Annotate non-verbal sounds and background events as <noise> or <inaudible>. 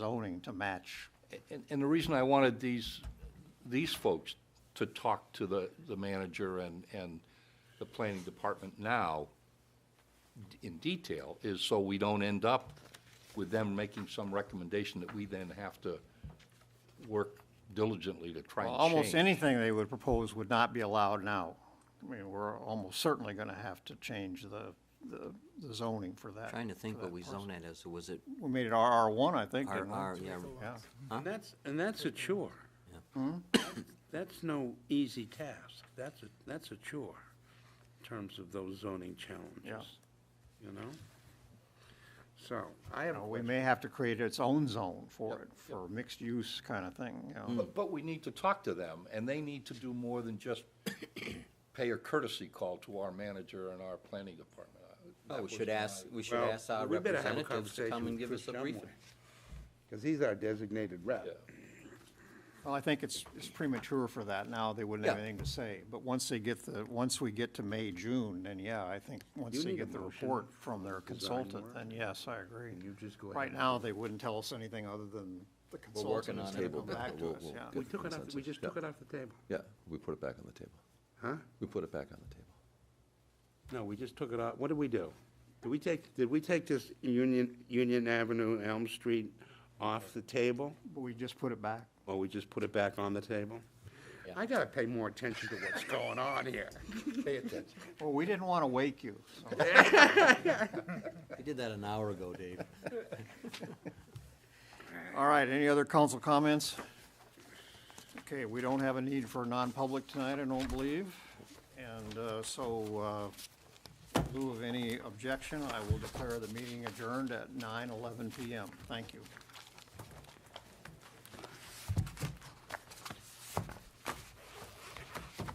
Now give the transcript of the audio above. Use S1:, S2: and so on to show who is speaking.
S1: zoning to match.
S2: And, and the reason I wanted these, these folks to talk to the, the manager and, and the planning department now in detail is so we don't end up with them making some recommendation that we then have to work diligently to try and change.
S1: Almost anything they would propose would not be allowed now. I mean, we're almost certainly gonna have to change the, the the zoning for that.
S3: Trying to think
S1: for
S3: what
S1: that
S3: we
S1: parcel.
S3: zoned it as, was it
S1: We made it RR one, I think. didn't we?
S3: RR, yeah,
S1: Yeah.
S4: And that's, and that's a chore. That's no easy task. That's a, that's a chore in terms of those zoning challenges, you know? So, I have a
S1: You know, we
S4: question.
S1: may have to create its own zone for it, for mixed use kind of thing, you know.
S2: But, but we need to talk to them, and they need to do more than just pay a courtesy call to our manager and our planning department. That
S3: Oh, we
S2: was
S3: should
S2: my-
S3: ask, we should
S4: Well,
S3: ask our
S4: we better have a
S3: representatives to
S4: conversation
S3: come and
S4: with
S3: give
S4: Chris
S3: us a briefing.
S4: Because he's our designated
S2: Yeah.
S4: rep.
S1: Well, I think it's, it's premature for that now, they wouldn't have
S2: Yeah.
S1: anything to say, but once they get the, once we get to May, June, then yeah, I think, once
S4: You
S1: they
S4: need a
S1: get the
S4: motion
S1: report from their
S4: design
S1: consultant,
S4: work.
S1: then yes, I agree.
S4: You just go
S1: Right
S4: ahead.
S1: now, they wouldn't tell us anything other than the
S5: We're working
S1: consultant is
S5: on
S1: gonna
S5: it,
S1: come
S5: but
S1: back to
S5: we'll-
S1: us,
S5: we'll
S1: yeah.
S5: get
S4: We
S5: the
S4: took it off, we
S5: consensus.
S4: just
S5: Yeah.
S4: took it off the table.
S5: Yeah, we put it back on the table.
S4: Huh?
S5: We put it back on the table.
S4: No, we just took it off. What did we do? Did we take, did we take this Union, Union Avenue, Elm Street off the table?
S1: But we just put it back.
S4: Or we just put it back on the table? I gotta pay more attention to what's <laughs> going on here. Pay attention.
S1: Well, we didn't wanna wake you, so,
S3: We did that an hour ago, Dave.
S1: all right, any other council comments? Okay, we don't have a need for non-public tonight, I don't believe, and, uh, so, uh, In lieu of any objection, I will declare the meeting adjourned at 9:11 PM. Thank you.